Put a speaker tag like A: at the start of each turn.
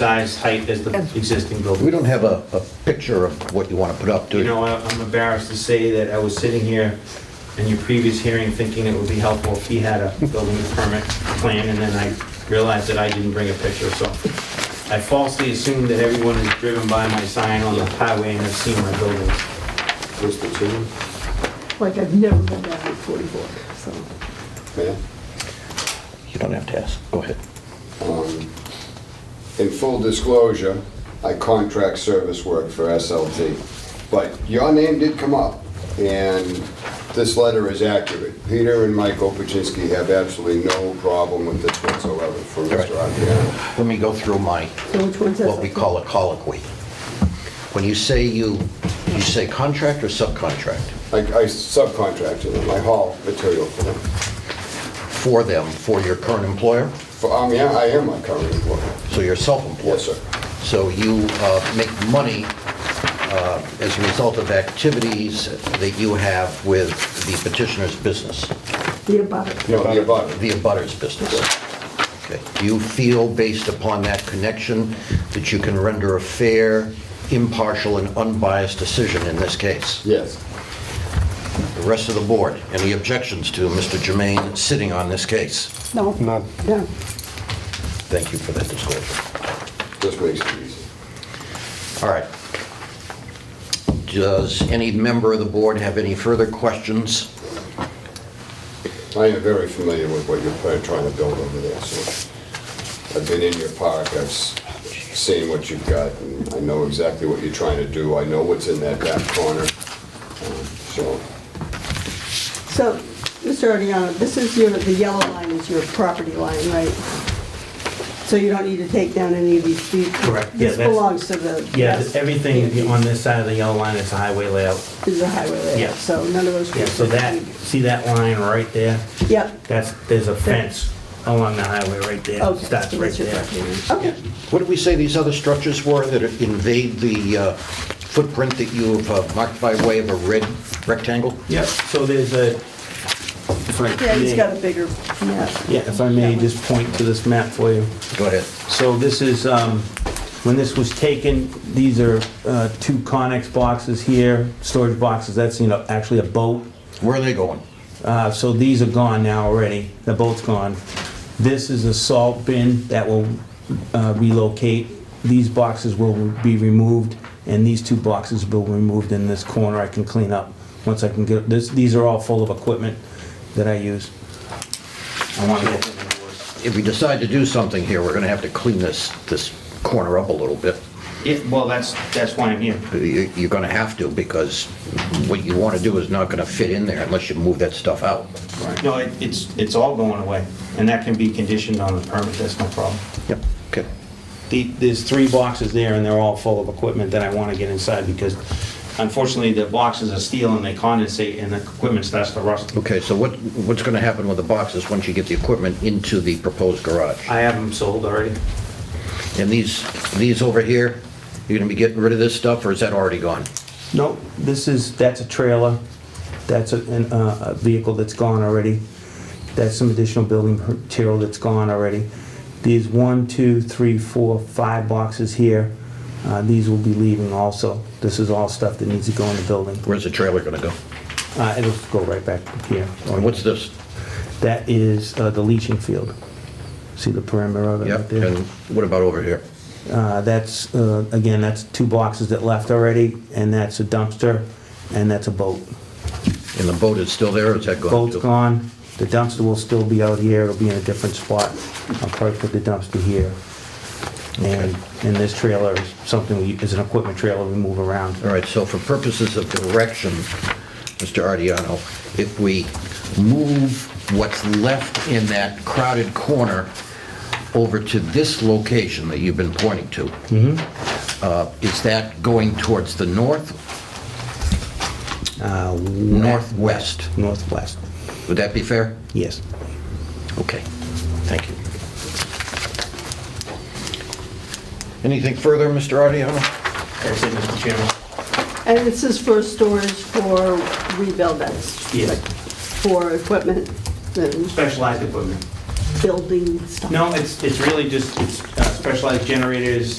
A: size, height as the existing
B: We
A: building.
B: don't have a, a picture of what you want to put up, do
A: You
B: you?
A: know, I- I'm embarrassed to say that I was sitting here in your previous hearing thinking it would be helpful if he had a building permit plan, and then I realized that I didn't bring a picture, so I falsely assumed that everyone has driven by my sign on the highway and has seen my buildings.
C: Where's the two?
D: Like I've never been down Route 44, so.
C: Yeah.
B: You don't have to ask, go ahead.
C: In full disclosure, I contract service work for SLT, but your name did come up, and this letter is accurate. Peter and Michael Paczynski have absolutely no problem with this whatsoever from Mr. Adriano.
B: Let me go through my,
D: So which one's that?
B: what we call a colloquy. When you say you, you say contract or subcontract?
C: I I subcontracted them, I haul material for them.
B: For them, for your current employer?
C: For, um, yeah, I am my current employer.
B: So you're self-employed?
C: Yes, sir.
B: So you uh, make money uh, as a result of activities that you have with the petitioner's business,
D: The abutter.
C: No, the abutter.
B: the abutter's business? Okay. Do you feel, based upon that connection, that you can render a fair, impartial, and unbiased decision in this case?
C: Yes.
B: The rest of the board, any objections to Mr. Jermaine sitting on this case?
D: No.
E: None.
D: No.
B: Thank you for that disclosure.
C: This makes it easy.
B: All right. Does any member of the board have any further questions?
C: I am very familiar with what you're trying to build over there, so I've been in your park, I've s- seen what you've got, and I know exactly what you're trying to do, I know what's in that back corner, Um, so,
D: So, Mr. Ariano, this is your, the yellow line is your property line, right? So you don't need to take down any of these streets?
A: Correct, yeah,
D: This
A: that's-
D: belongs to the...
A: Yeah, everything on this side of the yellow line is a highway layout.
D: Is a highway
A: Yeah.
D: layout, so none of those...
A: Yeah, so that, see that line right there?
D: Yep.
A: That's, there's a fence along the highway right there.
D: Okay,
A: Starts
D: so
A: right
D: that's your
A: there.
D: Okay,
B: What did we say these other structures were that invade the uh, footprint that you've uh, marked by way of a red rectangle?
A: Yep, so there's a, if I
D: yeah, he's
A: may-
D: got a bigger map.
A: Yeah, if I may just point to this map for you.
B: Go ahead.
A: So this is, um, when this was taken, these are uh, two Conex boxes here, storage boxes, that's, you know, actually a boat.
B: Where are they going?
A: Uh, So these are gone now already, the boat's gone. This is a salt bin that will uh, relocate. These boxes will be removed, and these two boxes will be removed in this corner I can clean up. Once I can get, this, these are all full of equipment that I use. I want to get them indoors.
B: If we decide to do something here, we're going to have to clean this, this corner up a little bit.
A: Yeah, well, that's, that's why I'm here.
B: You- You're going to have to because what you want to do is not going to fit in there unless you move that stuff out.
A: No, it- it's, it's all going away, and that can be conditioned on the permit, that's no problem.
B: Yep, okay.
A: The, there's three boxes there, and they're all full of equipment that I want to get inside, because unfortunately, the boxes are steel and they condensate, and the equipment starts to rust.
B: Okay, so what, what's going to happen with the boxes once you get the equipment into the proposed garage?
A: I have them sold already.
B: And these, these over here, you're going to be getting rid of this stuff or is that already gone?
A: No, this is, that's a trailer, that's a, an, uh, a vehicle that's gone already, that's some additional building material that's gone already. There's one, two, three, four, five boxes here, uh, these will be leaving also. This is all stuff that needs to go in the building.
B: Where's the trailer going to go?
A: Uh, it'll go right back here.
B: And what's this?
A: That is uh, the leaching field. See the perimeter of it right
B: Yep,
A: there?
B: and what about over here?
A: Uh, That's, uh, again, that's two boxes that left already, and that's a dumpster, and that's a boat.
B: And the boat is still there or is that gone?
A: Boat's
B: too?
A: gone, the dumpster will still be out here, it'll be in a different spot. I'll probably put the dumpster here. And, and this trailer is something, we is an equipment trailer we move around.
B: All right, so for purposes of direction, Mr. Ardiano, if we move what's left in that crowded corner over to this location that you've been pointing to, uh, is that going towards the north,
A: Uh,
B: northwest?
A: Northwest,
B: Would that be fair?
A: yes.
B: Okay, thank you. Anything further, Mr. Ardiano?
A: That's it, Mr. Chairman.
D: And this is for storage for rebuild that's...
A: Yes.
D: like, For equipment and
A: Specialized equipment.
D: building stuff?
A: No, it's, it's really just, it's uh,
F: specialized generators,